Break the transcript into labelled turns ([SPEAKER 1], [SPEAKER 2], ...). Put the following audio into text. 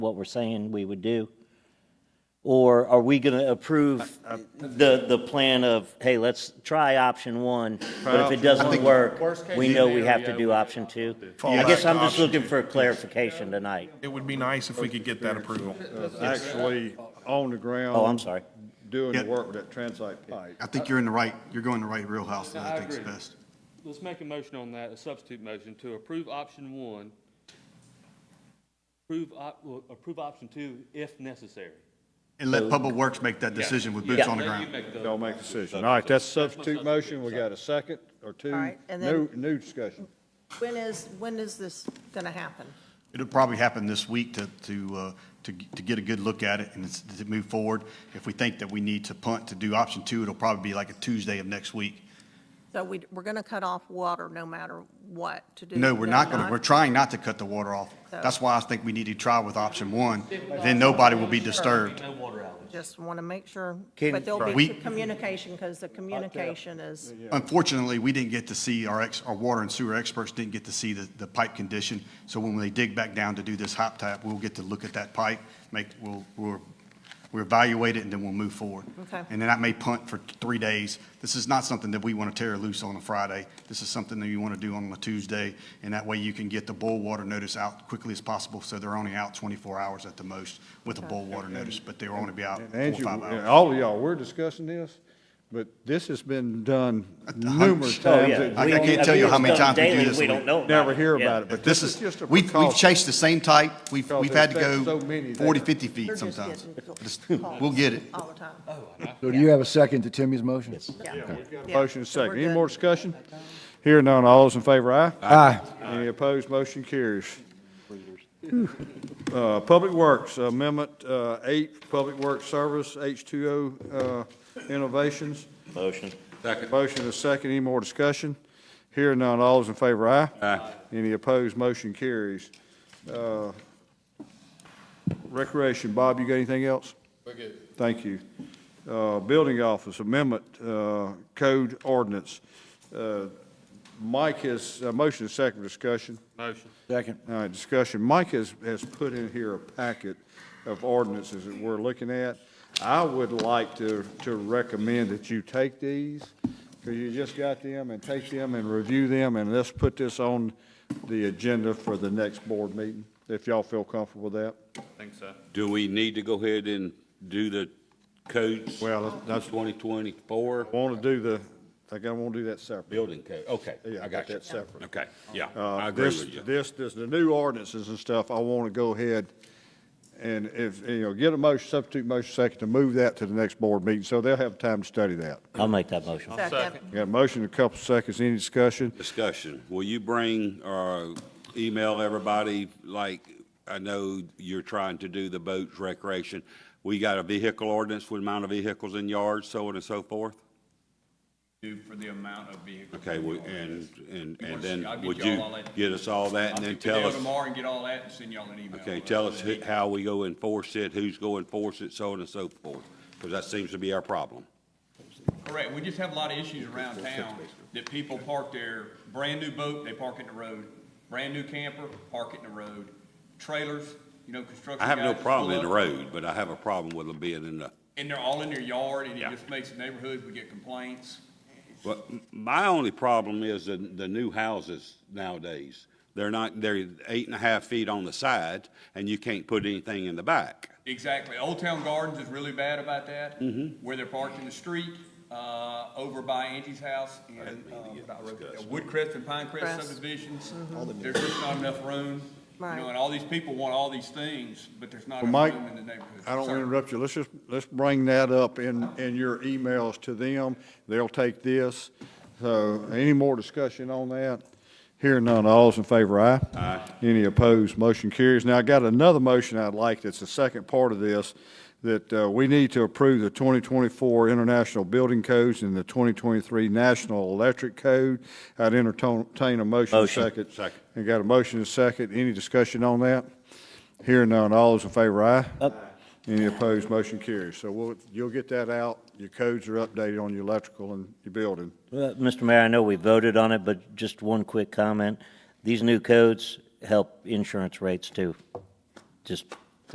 [SPEAKER 1] what we're saying we would do? Or are we going to approve the, the plan of, hey, let's try option one, but if it doesn't work, we know we have to do option two? I guess I'm just looking for clarification tonight.
[SPEAKER 2] It would be nice if we could get that approval.
[SPEAKER 3] actually on the ground.
[SPEAKER 1] Oh, I'm sorry.
[SPEAKER 3] Doing the
[SPEAKER 4] Yeah.
[SPEAKER 3] work with that transite pipe.
[SPEAKER 4] I think you're in the right, you're going the right wheelhouse, and
[SPEAKER 5] No, I
[SPEAKER 4] I think's
[SPEAKER 5] agree.
[SPEAKER 4] best.
[SPEAKER 5] Let's make a motion on that, a substitute motion, to approve option one, approve, op- well, approve option two if necessary.
[SPEAKER 4] And let Public Works make that decision with boots
[SPEAKER 1] Yeah.
[SPEAKER 4] on the
[SPEAKER 5] Let you
[SPEAKER 4] ground.
[SPEAKER 5] make the-
[SPEAKER 3] Y'all make a decision. All right, that's substitute
[SPEAKER 5] Substitute.
[SPEAKER 3] motion. We got a second or two.
[SPEAKER 6] All right, and
[SPEAKER 3] New,
[SPEAKER 6] then-
[SPEAKER 3] new discussion.
[SPEAKER 6] When is, when is this going to happen?
[SPEAKER 4] It'll probably happen this week to, to, uh, to, to get a good look at it and it's- to move forward. If we think that we need to punt to do option two, it'll probably be like a Tuesday of next week.
[SPEAKER 6] So we, we're going to cut off water no matter what to do?
[SPEAKER 4] No, we're not gonna, we're trying not to cut the water off. That's why I think we need to try with option one, then nobody will be disturbed.
[SPEAKER 5] No water outage.
[SPEAKER 6] Just want to make sure,
[SPEAKER 1] Can-
[SPEAKER 6] but there'll
[SPEAKER 4] We-
[SPEAKER 6] be communication because the communication is,
[SPEAKER 4] Unfortunately, we didn't get to see, our ex, our water and sewer experts didn't get to see the, the pipe condition. So when they dig back down to do this hop tap, we'll get to look at that pipe, make, we'll, we'll, we'll evaluate it and then we'll move forward.
[SPEAKER 6] Okay.
[SPEAKER 4] And then I may punt for three days. This is not something that we want to tear loose on a Friday. This is something that you want to do on a Tuesday. And that way you can get the boil water notice out quickly as possible. So they're only out twenty-four hours at the most with a boil water notice, but they're only be out
[SPEAKER 3] And
[SPEAKER 4] four or
[SPEAKER 3] Angie,
[SPEAKER 4] five hours.
[SPEAKER 3] and all of y'all, we're discussing this, but this has been done
[SPEAKER 4] hundred
[SPEAKER 3] numerous
[SPEAKER 4] percent.
[SPEAKER 1] Oh,
[SPEAKER 3] times.
[SPEAKER 1] yeah.
[SPEAKER 3] It-
[SPEAKER 4] I
[SPEAKER 1] We
[SPEAKER 4] can't
[SPEAKER 1] don't-
[SPEAKER 4] tell you how many
[SPEAKER 1] it's done
[SPEAKER 4] times we do
[SPEAKER 1] daily,
[SPEAKER 4] this
[SPEAKER 1] We
[SPEAKER 4] and we
[SPEAKER 1] don't know.
[SPEAKER 3] Never hear
[SPEAKER 1] Yeah.
[SPEAKER 3] about it, but
[SPEAKER 4] This
[SPEAKER 3] this is
[SPEAKER 4] is,
[SPEAKER 3] just a
[SPEAKER 4] we've, we've
[SPEAKER 3] precaution.
[SPEAKER 4] chased the same type, we've,
[SPEAKER 3] Because
[SPEAKER 4] we've had to
[SPEAKER 3] there's
[SPEAKER 4] go
[SPEAKER 3] so many
[SPEAKER 4] 40,
[SPEAKER 3] there.
[SPEAKER 4] 50 feet
[SPEAKER 6] they're just
[SPEAKER 4] sometimes.
[SPEAKER 6] getting
[SPEAKER 4] Just-
[SPEAKER 6] calls
[SPEAKER 4] We'll get it.
[SPEAKER 6] all the time.
[SPEAKER 7] So do you have a second to Timmy's motion?
[SPEAKER 6] Yeah. Yeah.
[SPEAKER 3] Motion is
[SPEAKER 6] So we're
[SPEAKER 3] second. Any
[SPEAKER 6] good.
[SPEAKER 3] more discussion? Here none, all those in favor, aye?
[SPEAKER 7] Aye.
[SPEAKER 3] Any opposed, motion carries. Uh, Public Works, Amendment uh, 8, Public Works Service, H2O uh, Innovations.
[SPEAKER 1] Motion.
[SPEAKER 3] Motion is second, any more discussion? Here none, all those in favor, aye? Aye. Any opposed, motion carries. Uh, Recreation, Bob, you got anything else? We're good. Thank you. Uh, Building Office Amendment uh, Code Ordinance. Uh, Mike has, uh, motion is second for discussion.
[SPEAKER 5] Motion.
[SPEAKER 7] Second.
[SPEAKER 3] All right, discussion. Mike has, has put in here a packet of ordinances that we're looking at. I would like to, to recommend that you take these, because you just got them, and take them and review them, and let's put this on the agenda for the next board meeting, if y'all feel comfortable with that.
[SPEAKER 5] Think so.
[SPEAKER 8] Do we need to go ahead and do the codes?
[SPEAKER 3] Well, that's-
[SPEAKER 8] 2024
[SPEAKER 3] I want to do the, I think I want to do that separate.
[SPEAKER 8] building code, okay,
[SPEAKER 3] Yeah,
[SPEAKER 8] I got you.
[SPEAKER 3] that separate.
[SPEAKER 8] Okay, yeah,
[SPEAKER 3] Uh,
[SPEAKER 8] I agree
[SPEAKER 3] this-
[SPEAKER 8] with you.
[SPEAKER 3] This, this, the new ordinances and stuff, I want to go ahead and if, you know, get a motion, substitute motion second to move that to the next board meeting, so they'll have time to study that.
[SPEAKER 1] I'll make that motion.
[SPEAKER 6] Second.
[SPEAKER 3] We Got a motion, a couple seconds, any discussion?
[SPEAKER 8] Discussion, will you bring or email everybody, like, I know you're trying to do the boats recreation. We got a vehicle ordinance with amount of vehicles in yards, so on and so forth?
[SPEAKER 9] do for the amount of vehicles.
[SPEAKER 8] Okay,
[SPEAKER 9] that
[SPEAKER 8] we-
[SPEAKER 9] y'all have.
[SPEAKER 8] and, and,
[SPEAKER 9] I'll
[SPEAKER 8] and then
[SPEAKER 9] get
[SPEAKER 8] would
[SPEAKER 9] y'all
[SPEAKER 8] you
[SPEAKER 9] all that.
[SPEAKER 8] get us all that
[SPEAKER 9] I'll
[SPEAKER 8] and then
[SPEAKER 9] get the deal
[SPEAKER 8] tell us?
[SPEAKER 9] Tomorrow and get all that and send y'all an email.
[SPEAKER 8] Okay, tell us who- how we go enforce it, who's going to enforce it, so on and so forth, because that seems to be our problem.
[SPEAKER 9] Correct, we just have a lot of issues around town that people park their brand-new boat, they park it in the road. Brand-new camper, park it in the road. Trailers, you know, construction
[SPEAKER 8] I have no
[SPEAKER 9] guys
[SPEAKER 8] problem in the
[SPEAKER 9] pull up,
[SPEAKER 8] road, but I have a problem with them being in the,
[SPEAKER 9] And they're all in their yard and it
[SPEAKER 8] Yeah.
[SPEAKER 9] just makes the neighborhood, we get complaints.
[SPEAKER 8] but m- my only problem is the, the new houses nowadays. They're not, they're eight and a half feet on the side, and you can't put anything in the back.
[SPEAKER 9] Exactly. Old Town Gardens is really bad about that.
[SPEAKER 3] Mm-hmm.
[SPEAKER 9] Where they're parked in the street, uh, over by Angie's house and, uh, Woodcrest and Pinecrest
[SPEAKER 6] Crest.
[SPEAKER 9] subdivisions. There's just not enough room. You
[SPEAKER 6] Right.
[SPEAKER 9] know, and all these people want all these things, but there's not enough
[SPEAKER 3] Mike,
[SPEAKER 9] room in the neighborhood.
[SPEAKER 3] I don't want
[SPEAKER 9] Sir.
[SPEAKER 3] to interrupt you, let's just, let's bring that up in, in your emails to them, they'll take this. So, any more discussion on that? Hearing none, all's in favor, aye? Aye. Any opposed, motion carries. Now, I got another motion I'd like, that's the second part of this, that uh, we need to approve the 2024 International Building Codes and the 2023 National Electric Code. I'd entertain a motion
[SPEAKER 1] Motion.
[SPEAKER 3] second.
[SPEAKER 8] Second.
[SPEAKER 3] And got a motion and a second, any discussion on that? Hearing none, all those in favor, aye? Any opposed, motion carries. So we'll, you'll get that out, your codes are updated on your electrical and your building.
[SPEAKER 1] Well, Mr. Uh, Mayor, I know we voted on it, but just one quick comment. These new codes help insurance rates too. Just